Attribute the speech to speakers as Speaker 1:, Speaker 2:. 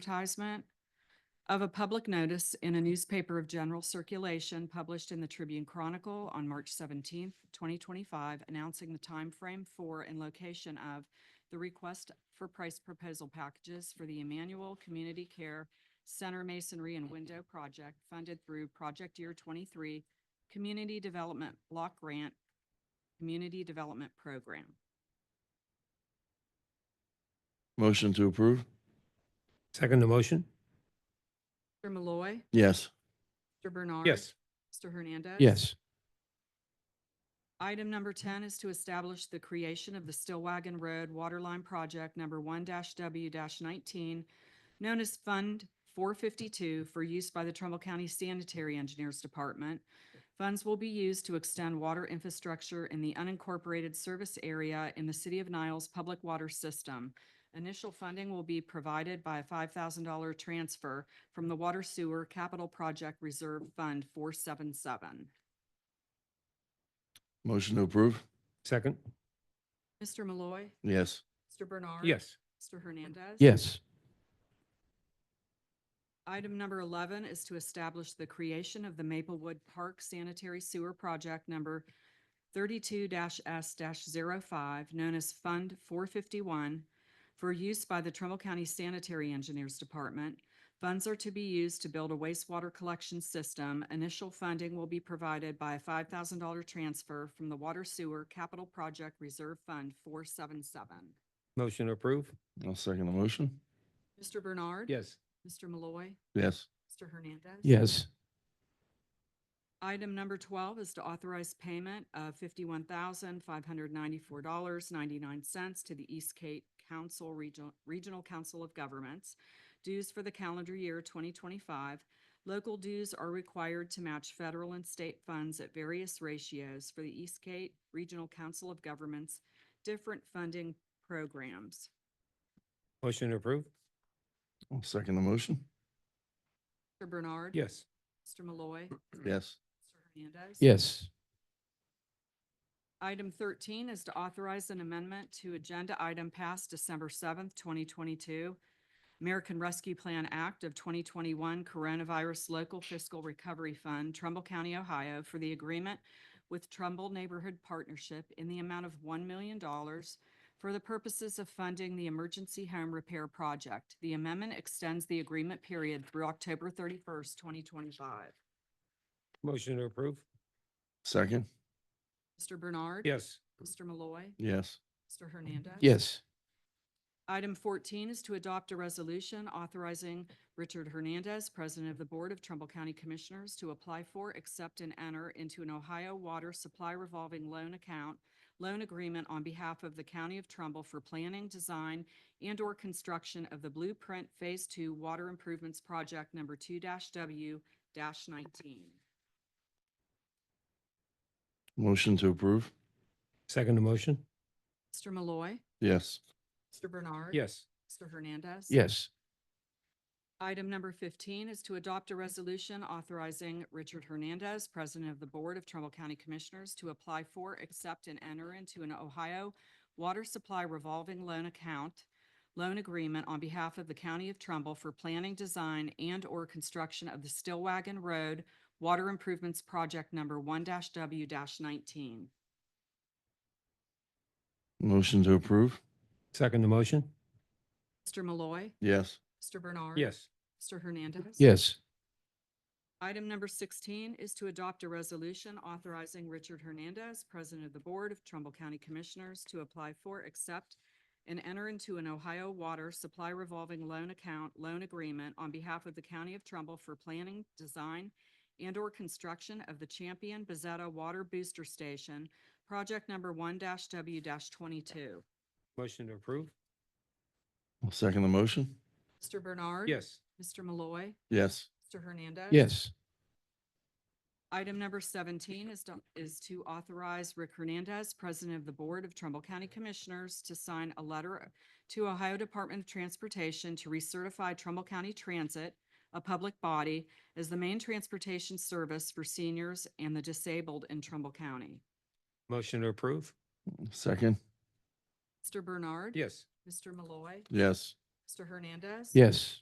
Speaker 1: advertisement of a public notice in a newspaper of general circulation published in the Tribune Chronicle on March seventeenth, twenty twenty-five, announcing the time frame for and location of the request for price proposal packages for the Emmanuel Community Care Center Masonry and Window Project funded through Project Year twenty-three Community Development Block Grant Community Development Program.
Speaker 2: Motion to approve?
Speaker 3: Second the motion?
Speaker 1: Mr. Malloy.
Speaker 2: Yes.
Speaker 1: Mr. Bernard.
Speaker 3: Yes.
Speaker 1: Mr. Hernandez.
Speaker 3: Yes.
Speaker 1: Item number ten is to establish the creation of the Stillwagon Road Waterline Project number one W nineteen, known as Fund four fifty-two for use by the Trumbull County Sanitary Engineers Department. Funds will be used to extend water infrastructure in the unincorporated service area in the City of Niles Public Water System. Initial funding will be provided by a five thousand dollar transfer from the Water Sewer Capital Project Reserve Fund four seven seven.
Speaker 2: Motion to approve?
Speaker 3: Second?
Speaker 1: Mr. Malloy.
Speaker 2: Yes.
Speaker 1: Mr. Bernard.
Speaker 3: Yes.
Speaker 1: Mr. Hernandez.
Speaker 3: Yes.
Speaker 1: Item number eleven is to establish the creation of the Maplewood Park Sanitary Sewer Project number thirty-two dash S 5 known as Fund four fifty-one, for use by the Trumbull County Sanitary Engineers Department. Funds are to be used to build a wastewater collection system. Initial funding will be provided by a five thousand dollar transfer from the Water Sewer Capital Project Reserve Fund four seven seven.
Speaker 3: Motion to approve?
Speaker 2: I'll second the motion.
Speaker 1: Mr. Bernard.
Speaker 3: Yes.
Speaker 1: Mr. Malloy.
Speaker 2: Yes.
Speaker 1: Mr. Hernandez.
Speaker 3: Yes.
Speaker 1: Item number twelve is to authorize payment of fifty-one thousand, five hundred ninety-four dollars, ninety-nine cents to the East Cape Council Regional, Regional Council of Governments. Dues for the calendar year twenty twenty-five. Local dues are required to match federal and state funds at various ratios for the East Cape Regional Council of Governments, different funding programs.
Speaker 3: Motion to approve?
Speaker 2: I'll second the motion.
Speaker 1: Mr. Bernard.
Speaker 3: Yes.
Speaker 1: Mr. Malloy.
Speaker 2: Yes.
Speaker 1: Mr. Hernandez.
Speaker 3: Yes.
Speaker 1: Item thirteen is to authorize an amendment to agenda item passed December seventh, twenty twenty-two. American Rescue Plan Act of twenty twenty-one Coronavirus Local Fiscal Recovery Fund, Trumbull County, Ohio, for the agreement with Trumbull Neighborhood Partnership in the amount of one million dollars for the purposes of funding the Emergency Home Repair Project. The amendment extends the agreement period through October thirty-first, twenty twenty-five.
Speaker 3: Motion to approve?
Speaker 2: Second?
Speaker 1: Mr. Bernard.
Speaker 3: Yes.
Speaker 1: Mr. Malloy.
Speaker 2: Yes.
Speaker 1: Mr. Hernandez.
Speaker 3: Yes.
Speaker 1: Item fourteen is to adopt a resolution authorizing Richard Hernandez, President of the Board of Trumbull County Commissioners, to apply for, accept, and enter into an Ohio Water Supply Revolving Loan Account loan agreement on behalf of the County of Trumbull for planning, design, and/or construction of the Blueprint Phase Two Water Improvements Project Number two W nineteen.
Speaker 2: Motion to approve?
Speaker 3: Second the motion?
Speaker 1: Mr. Malloy.
Speaker 2: Yes.
Speaker 1: Mr. Bernard.
Speaker 3: Yes.
Speaker 1: Mr. Hernandez.
Speaker 3: Yes.
Speaker 1: Item number fifteen is to adopt a resolution authorizing Richard Hernandez, President of the Board of Trumbull County Commissioners, to apply for, accept, and enter into an Ohio Water Supply Revolving Loan Account loan agreement on behalf of the County of Trumbull for planning, design, and/or construction of the Stillwagon Road Water Improvements Project Number one W nineteen.
Speaker 2: Motion to approve?
Speaker 3: Second the motion?
Speaker 1: Mr. Malloy.
Speaker 2: Yes.
Speaker 1: Mr. Bernard.
Speaker 3: Yes.
Speaker 1: Mr. Hernandez.
Speaker 3: Yes.
Speaker 1: Item number sixteen is to adopt a resolution authorizing Richard Hernandez, President of the Board of Trumbull County Commissioners, to apply for, accept, and enter into an Ohio Water Supply Revolving Loan Account Loan Agreement on behalf of the County of Trumbull for planning, design, and/or construction of the Champion Bezetta Water Booster Station, project number one W twenty-two.
Speaker 3: Motion to approve?
Speaker 2: I'll second the motion.
Speaker 1: Mr. Bernard.
Speaker 3: Yes.
Speaker 1: Mr. Malloy.
Speaker 2: Yes.
Speaker 1: Mr. Hernandez.
Speaker 3: Yes.
Speaker 1: Item number seventeen is to, is to authorize Rick Hernandez, President of the Board of Trumbull County Commissioners, to sign a letter to Ohio Department of Transportation to recertify Trumbull County Transit, a public body, as the main transportation service for seniors and the disabled in Trumbull County.
Speaker 3: Motion to approve?
Speaker 2: Second?
Speaker 1: Mr. Bernard.
Speaker 3: Yes.
Speaker 1: Mr. Malloy.
Speaker 2: Yes.
Speaker 1: Mr. Hernandez.
Speaker 3: Yes.